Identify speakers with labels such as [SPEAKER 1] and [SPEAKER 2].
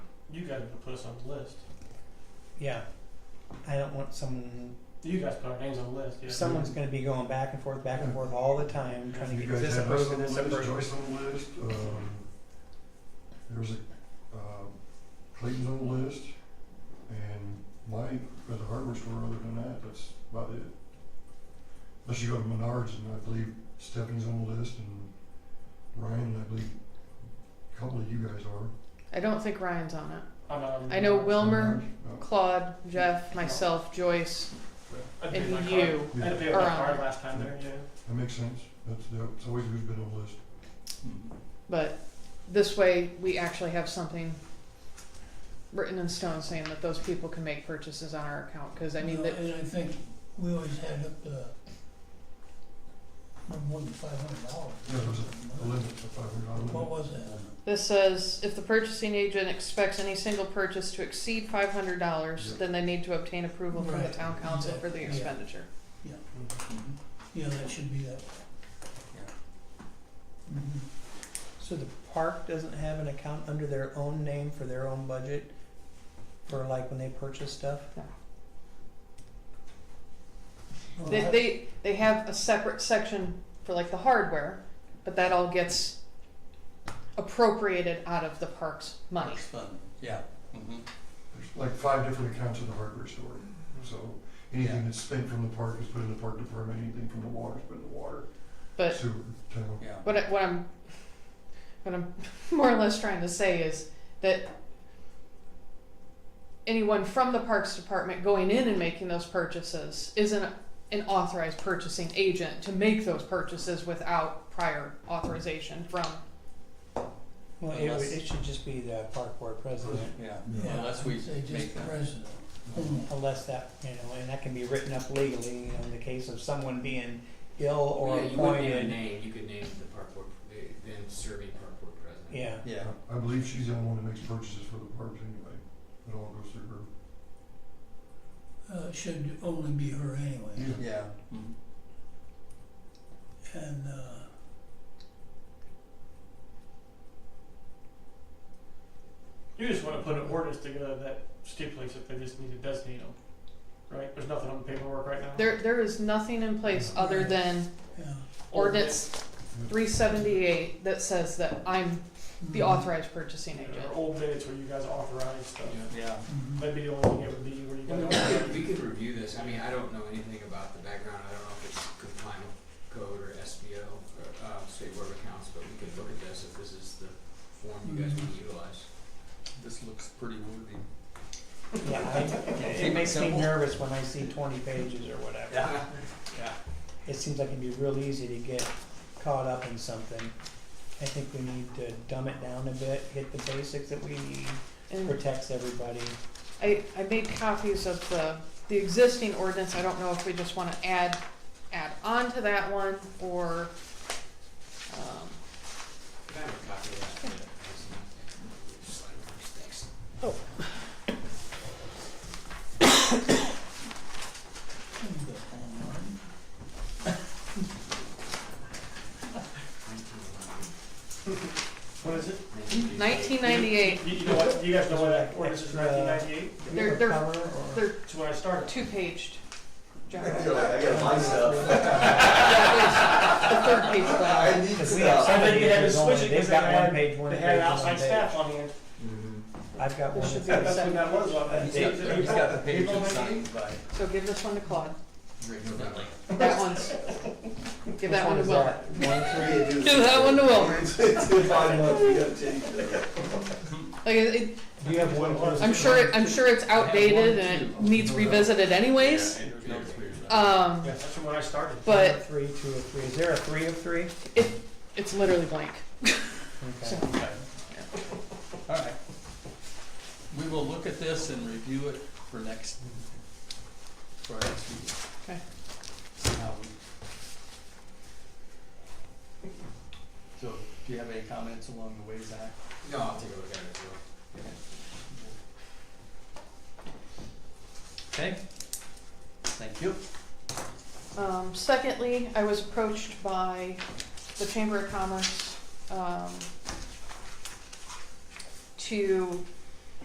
[SPEAKER 1] You guys have to put us on the list.
[SPEAKER 2] Yeah. I don't want someone,
[SPEAKER 1] You guys put our names on the list, yeah.
[SPEAKER 2] someone's gonna be going back and forth, back and forth all the time, trying to
[SPEAKER 3] You
[SPEAKER 2] get
[SPEAKER 3] guys
[SPEAKER 2] this
[SPEAKER 3] have us
[SPEAKER 2] approved
[SPEAKER 3] on
[SPEAKER 2] and
[SPEAKER 3] the
[SPEAKER 2] this
[SPEAKER 3] list,
[SPEAKER 2] approved.
[SPEAKER 3] Joyce on the list, um, there's a, um, Clayton's on the list, and Mike at the hardware store, other than that, that's about it. Unless you go to Menards, and I believe Stephanie's on the list, and Ryan, and I believe a couple of you guys are.
[SPEAKER 4] I don't think Ryan's on it.
[SPEAKER 1] I'm not on
[SPEAKER 4] I know
[SPEAKER 1] the-
[SPEAKER 4] Wilmer,
[SPEAKER 3] No.
[SPEAKER 4] Claude, Jeff, myself, Joyce,
[SPEAKER 1] I did my
[SPEAKER 4] and
[SPEAKER 1] card.
[SPEAKER 4] you.
[SPEAKER 1] I had to
[SPEAKER 3] Yeah,
[SPEAKER 1] pay with my
[SPEAKER 4] Around.
[SPEAKER 1] card last time there, yeah.
[SPEAKER 3] that makes sense, that's, that's always who's been on the list.
[SPEAKER 4] But this way, we actually have something written in stone saying that those people can make purchases on our account. Because I mean,
[SPEAKER 5] Well,
[SPEAKER 4] that,
[SPEAKER 5] And I think we always had up to no more than five hundred dollars.
[SPEAKER 3] Yeah, there's A limit of five hundred
[SPEAKER 5] What
[SPEAKER 3] dollars.
[SPEAKER 5] was that?
[SPEAKER 4] this says if the purchasing agent expects any single purchase to exceed five hundred dollars,
[SPEAKER 3] Yeah.
[SPEAKER 4] then they need to obtain approval from the
[SPEAKER 5] Right.
[SPEAKER 4] town council for the
[SPEAKER 5] Yeah.
[SPEAKER 4] expenditure.
[SPEAKER 5] Yeah, that should be that. Mhm.
[SPEAKER 2] So the park doesn't have an account under their own name for their own budget, for like when they purchase stuff?
[SPEAKER 5] Well,
[SPEAKER 4] They,
[SPEAKER 5] I-
[SPEAKER 4] they they have a separate section for like the hardware, but that all gets appropriated out of the parks money.
[SPEAKER 3] There's like five different accounts in the hardware store. So anything that's spent from the park is put in the park department, anything from the water is put in the water,
[SPEAKER 4] But
[SPEAKER 3] sewer, town.
[SPEAKER 4] what I, what I'm what I'm more or less trying to say is that anyone from the parks department going in and making those purchases isn't an authorized purchasing agent to make those purchases without prior authorization from
[SPEAKER 2] Well, it would, it should just be the park board president,
[SPEAKER 6] Yeah,
[SPEAKER 5] Yeah,
[SPEAKER 6] unless
[SPEAKER 5] I'd
[SPEAKER 6] we
[SPEAKER 5] say just
[SPEAKER 6] make
[SPEAKER 5] the
[SPEAKER 6] that-
[SPEAKER 5] president.
[SPEAKER 2] unless that, you know, and that can be written up legally, you know, in the case of someone being ill or
[SPEAKER 7] yeah, you wouldn't name a
[SPEAKER 2] appointed,
[SPEAKER 7] name. You could name the park board, the then serving park board president.
[SPEAKER 2] yeah.
[SPEAKER 6] yeah,
[SPEAKER 3] I believe she's the only one that makes purchases for the parks anyway. It all goes through her.
[SPEAKER 5] Uh, it should only be her anyway,
[SPEAKER 6] yeah. mhm.
[SPEAKER 5] and, uh,
[SPEAKER 1] You just wanna put an ordinance together that stipulates that they just need to designate them, right? There's nothing on the paperwork right now.
[SPEAKER 4] there there is nothing in place other than
[SPEAKER 5] yeah.
[SPEAKER 4] ordinance 378 that says that I'm the
[SPEAKER 5] Mhm.
[SPEAKER 4] authorized purchasing
[SPEAKER 1] Yeah,
[SPEAKER 4] agent.
[SPEAKER 1] Or old minutes where you guys authorize stuff.
[SPEAKER 6] Yeah.
[SPEAKER 7] Yeah.
[SPEAKER 5] Mhm.
[SPEAKER 1] That'd be the only thing it would be where you
[SPEAKER 7] I
[SPEAKER 1] guys.
[SPEAKER 7] mean, we could,
[SPEAKER 1] authorize.
[SPEAKER 7] we could review this. I mean, I don't know anything about the background. I don't know if it's compliant with code or SBO or uh, state board of accounts, but we could look at this if this is the form you
[SPEAKER 2] Mm-hmm.
[SPEAKER 7] guys want to utilize.
[SPEAKER 6] This looks pretty wordy.
[SPEAKER 2] Yeah, I, it
[SPEAKER 6] Keep
[SPEAKER 2] makes me
[SPEAKER 6] simple.
[SPEAKER 2] nervous when I see twenty pages or whatever.
[SPEAKER 6] Yeah.
[SPEAKER 2] It seems like it'd be real easy to get caught up in something. I think we need to dumb it down a bit, hit the basics that we need,
[SPEAKER 4] And
[SPEAKER 2] protects everybody.
[SPEAKER 4] I, I made copies of the, the existing ordinance. I don't know if we just want to add, add on to that one or, um,
[SPEAKER 7] Can I have a copy of that? Yeah. Slide over. Thanks.
[SPEAKER 5] Can we go online?
[SPEAKER 1] What is it?
[SPEAKER 7] 1998.
[SPEAKER 4] 1998.
[SPEAKER 1] You, you know what, you guys know why that ordinance is nineteen
[SPEAKER 2] Extra-
[SPEAKER 1] ninety-eight?
[SPEAKER 2] Do we
[SPEAKER 4] They're-
[SPEAKER 2] have a
[SPEAKER 4] they're-
[SPEAKER 2] cover or-
[SPEAKER 4] They're
[SPEAKER 1] That's when I started.
[SPEAKER 4] two-paged. John.
[SPEAKER 8] I feel like I gotta buy stuff.
[SPEAKER 4] That is the third page.
[SPEAKER 8] I need
[SPEAKER 2] Because we have
[SPEAKER 8] stuff.
[SPEAKER 1] I
[SPEAKER 2] seven
[SPEAKER 1] think they had to
[SPEAKER 2] pages
[SPEAKER 1] switch
[SPEAKER 2] only.
[SPEAKER 1] it
[SPEAKER 2] They've
[SPEAKER 1] because
[SPEAKER 2] got
[SPEAKER 1] they
[SPEAKER 2] one
[SPEAKER 1] had-
[SPEAKER 2] page, one
[SPEAKER 1] They
[SPEAKER 2] page,
[SPEAKER 1] had
[SPEAKER 2] one
[SPEAKER 1] outside staff
[SPEAKER 2] page.
[SPEAKER 1] on hand.
[SPEAKER 6] Mm-hmm.
[SPEAKER 2] I've got
[SPEAKER 4] There
[SPEAKER 2] one.
[SPEAKER 4] should be
[SPEAKER 2] that's-
[SPEAKER 4] a
[SPEAKER 1] That's when that was on that.
[SPEAKER 6] He's got,
[SPEAKER 1] April-
[SPEAKER 6] he's got the
[SPEAKER 1] April
[SPEAKER 6] pages
[SPEAKER 1] 1998.
[SPEAKER 6] signed by
[SPEAKER 4] So give this one to Claude.
[SPEAKER 7] Rick, no doubt.
[SPEAKER 4] That one's,
[SPEAKER 2] which
[SPEAKER 4] give that one
[SPEAKER 2] is
[SPEAKER 4] to Will.
[SPEAKER 2] that?
[SPEAKER 8] One, three, and do
[SPEAKER 4] Give that one to Wilmer.
[SPEAKER 8] Two, five months, we gotta change that.
[SPEAKER 4] Like, it,
[SPEAKER 2] Do you have one?
[SPEAKER 1] I'm
[SPEAKER 4] I'm sure it, I'm sure it's outdated
[SPEAKER 6] Yeah,
[SPEAKER 4] and it
[SPEAKER 6] one, two.
[SPEAKER 4] needs revisited anyways.
[SPEAKER 7] Yeah, there's no clear-
[SPEAKER 4] Um,
[SPEAKER 1] Yeah, that's when I started.
[SPEAKER 2] One
[SPEAKER 4] but
[SPEAKER 2] of Three, two of three. Is there a three of three?
[SPEAKER 4] it's literally blank.
[SPEAKER 2] Okay.
[SPEAKER 6] All right. We will look at this and review it for next, for our next meeting.
[SPEAKER 4] Okay.
[SPEAKER 6] See how we. So, do you have any comments along the way, Zach?
[SPEAKER 7] No, I'll take a look at it as well.
[SPEAKER 6] Okay, thank you.
[SPEAKER 4] Um, secondly, I was approached by the Chamber of Commerce, um, to